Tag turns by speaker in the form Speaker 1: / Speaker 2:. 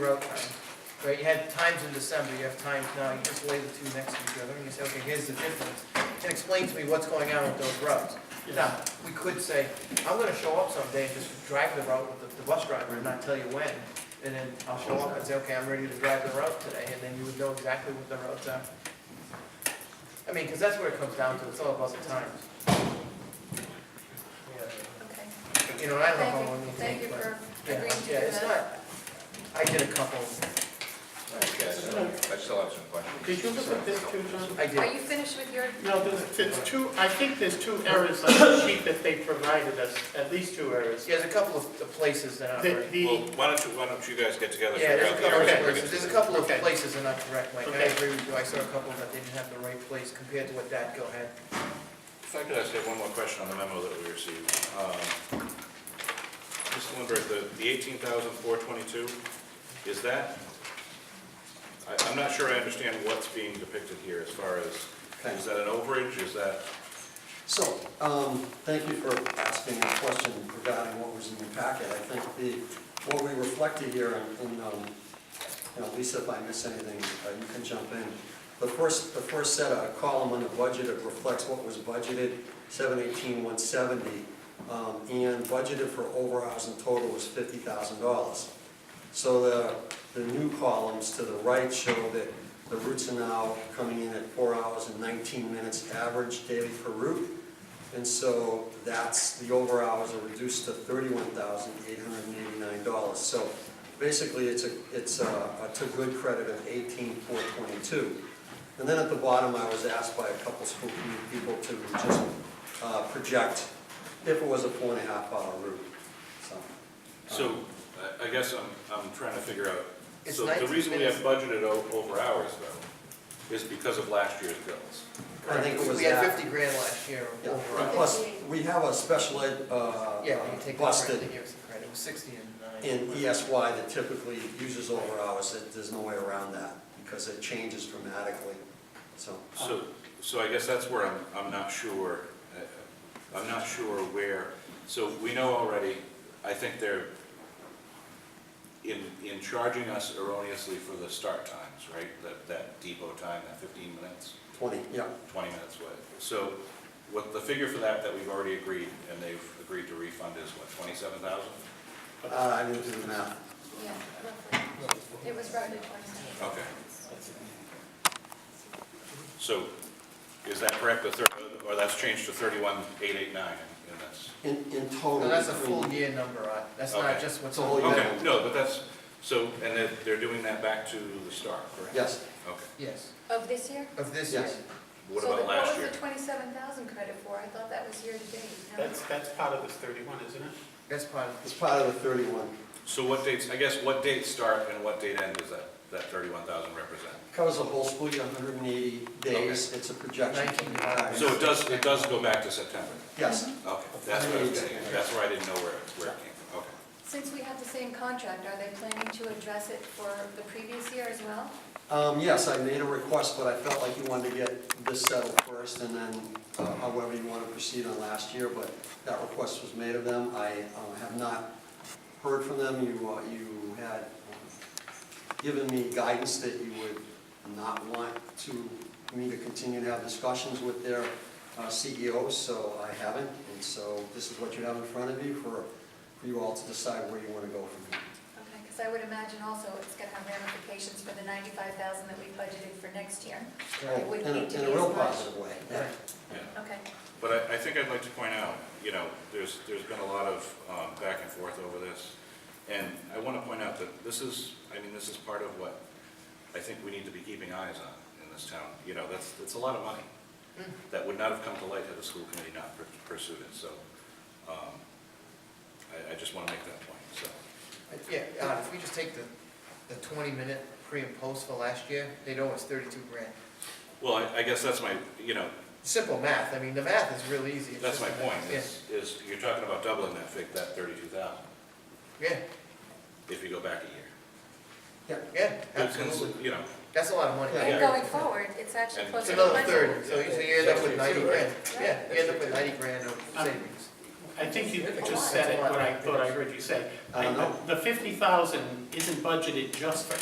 Speaker 1: route time, um, right? You had times in December, you have times now, you just lay the two next to each other, and you say, okay, here's the difference. And explain to me what's going on with those routes. Now, we could say, I'm gonna show up someday and just drive the route with the, the bus driver and not tell you when. And then I'll show up and say, okay, I'm ready to drive the route today, and then you would know exactly what the routes are. I mean, because that's where it comes down to, it's all about the times.
Speaker 2: Okay,
Speaker 1: You know, I don't know how
Speaker 2: thank
Speaker 1: long
Speaker 2: you,
Speaker 1: it
Speaker 2: thank you
Speaker 1: takes, but.
Speaker 2: for
Speaker 1: Yeah,
Speaker 2: agreeing to do
Speaker 1: yeah,
Speaker 2: that.
Speaker 1: it's not, I did a couple,
Speaker 3: Okay, so I still have some questions.
Speaker 4: Did you look at this too, John?
Speaker 1: I did.
Speaker 2: Are you finished with your,
Speaker 4: No, there's, there's two, I think there's two errors on the sheet that they provided us, at least two errors.
Speaker 1: Yeah, there's a couple of the places that aren't
Speaker 4: The,
Speaker 1: right.
Speaker 3: Well,
Speaker 4: the,
Speaker 3: why don't you, why don't you guys get together?
Speaker 1: Yeah,
Speaker 3: figure
Speaker 1: there's a
Speaker 3: out the
Speaker 1: couple of
Speaker 3: areas we're
Speaker 1: places,
Speaker 3: gonna-
Speaker 1: there's a couple of
Speaker 4: Okay.
Speaker 1: places that aren't correct, Mike, I
Speaker 4: Okay.
Speaker 1: agree with you, I saw a couple that didn't have the right place compared to what that, go ahead.
Speaker 3: If I could ask you one more question on the memo that we received. Um, Mr. Lindberg, the, the eighteen thousand four twenty-two, is that? I, I'm not sure I understand what's being depicted here as far as, is that an overage, is that?
Speaker 5: So, um, thank you for asking the question regarding what was in your packet. I think the, what we reflected here, and, and, um, you know, Lisa, if I miss anything, uh, you can jump in. The first, the first set, of column on the budget, it reflects what was budgeted, seven eighteen, one seventy, um, and budgeted for overhours in total was fifty thousand dollars. So the, the new columns to the right show that the routes are now coming in at four hours and nineteen minutes average daily per route. And so that's, the over hours are reduced to thirty-one thousand eight hundred and eighty-nine dollars. So basically, it's a, it's a, a to good credit of eighteen four twenty-two. And then at the bottom, I was asked by a couple school committee people to just, uh, project if it was a four and a half hour route, so.
Speaker 3: So, I, I guess I'm, I'm trying to figure out.
Speaker 1: Um, It's
Speaker 3: So the
Speaker 1: 19
Speaker 3: reason we have
Speaker 1: minutes.
Speaker 3: budgeted o- over hours though, is because of last year's bills.
Speaker 5: I think it was
Speaker 1: We had
Speaker 5: that.
Speaker 1: fifty grand last year
Speaker 5: Yeah,
Speaker 1: overall.
Speaker 5: and plus, we have a special ed, uh,
Speaker 1: Yeah, when you take the
Speaker 5: bus
Speaker 1: credit,
Speaker 5: that
Speaker 1: they give us the credit, it was sixty and nine.
Speaker 5: in ESY that typically uses over hours, that there's no way around that, because it changes dramatically, so.
Speaker 3: So, so I guess that's where I'm, I'm not sure, uh, I'm not sure where, so we know already, I think they're in, in charging us erroneously for the start times, right? That, that depot time, that fifteen minutes,
Speaker 5: Twenty, yeah,
Speaker 3: twenty minutes, what? So what, the figure for that, that we've already agreed, and they've agreed to refund is what, twenty-seven thousand?
Speaker 5: Uh, I didn't do the math.
Speaker 2: yeah, roughly. It was roughly twenty.
Speaker 3: Okay. So is that correct, the thir, or that's changed to thirty-one, eight, eight, nine in this?
Speaker 5: In, in total.
Speaker 1: No, that's a full
Speaker 5: between-
Speaker 1: year number, uh, that's not
Speaker 3: Okay.
Speaker 1: just what's.
Speaker 5: It's a whole
Speaker 1: on-
Speaker 5: year.
Speaker 3: Okay, no, but that's, so, and they're, they're doing that back to the start, correct?
Speaker 5: Yes,
Speaker 3: Okay.
Speaker 1: Yes,
Speaker 2: Of this year?
Speaker 1: of this year.
Speaker 5: Yes.
Speaker 3: What about
Speaker 2: So
Speaker 3: last
Speaker 2: what
Speaker 3: year?
Speaker 2: was the twenty-seven thousand credit for? I thought that was year to date. No?
Speaker 4: that's, that's part of this thirty-one, isn't it?
Speaker 1: That's part of
Speaker 5: it's part of the thirty-one,
Speaker 3: So what dates, I guess, what date start and what date end does that, that thirty-one thousand represent?
Speaker 5: covers the whole school year, hundred and eighty days, it's a projection.
Speaker 1: Nineteen.
Speaker 3: So it does, it does go back to September?
Speaker 5: Yes,
Speaker 3: Okay, that's what I was getting, at. that's where I didn't know where, it- where it came from, okay.
Speaker 2: Since we have the same contract, are they planning to address it for the previous year as well?
Speaker 5: um, yes, I made a request, but I felt like you wanted to get this settled first, and then uh, however you want to proceed on last year, but that request was made of them, I uh, have not heard from them, you, uh, you had um, given me guidance that you would not want to, me to continue to have discussions with their uh, CEOs, so I haven't, and so this is what you have in front of you for, for you all to decide where you want to go from here.
Speaker 2: Okay, because I would imagine also it's going to have ramifications for the ninety-five thousand that we budgeted for next year. It
Speaker 5: Oh,
Speaker 2: would
Speaker 5: in a,
Speaker 2: need to
Speaker 5: in a
Speaker 2: be as
Speaker 5: real
Speaker 2: much.
Speaker 5: positive way, yeah.
Speaker 1: Right.
Speaker 3: Yeah.
Speaker 2: Okay,
Speaker 3: But I, I think I'd like to point out, you know, there's, there's been a lot of um, back and forth over this. And I want to point out that this is, I mean, this is part of what I think we need to be keeping eyes on in this town. You know, that's, that's a lot of money that would not have come to light had the school committee not pur- pursued it. So um, I, I just want to make that point, so.
Speaker 1: Yeah, uh, if we just take the, the twenty minute pre and post for last year, they'd owe us thirty-two grand.
Speaker 3: Well, I- I guess that's my, you know,
Speaker 1: Simple math, I mean, the math is real easy. It's
Speaker 3: that's
Speaker 1: just
Speaker 3: my
Speaker 1: the math.
Speaker 3: point,
Speaker 1: Yeah.
Speaker 3: is, is you're talking about doubling that fig, that 32,000,
Speaker 1: Yeah,
Speaker 3: if you go back a year.
Speaker 1: yeah,
Speaker 3: It's- it's,
Speaker 1: absolutely.
Speaker 3: You know,
Speaker 1: That's a lot of money.
Speaker 3: Yeah.
Speaker 2: and going forward, it's actually
Speaker 3: And-
Speaker 2: closer
Speaker 1: It's
Speaker 2: to
Speaker 1: another
Speaker 2: budget.
Speaker 1: third, so you so you end up with
Speaker 4: Yeah.
Speaker 1: ninety grand,
Speaker 2: Yeah.
Speaker 1: yeah, you end up with ninety grand of savings.
Speaker 4: I think you just said it, what I thought I heard you say. uh,
Speaker 5: I don't know.
Speaker 4: The fifty thousand isn't budgeted just for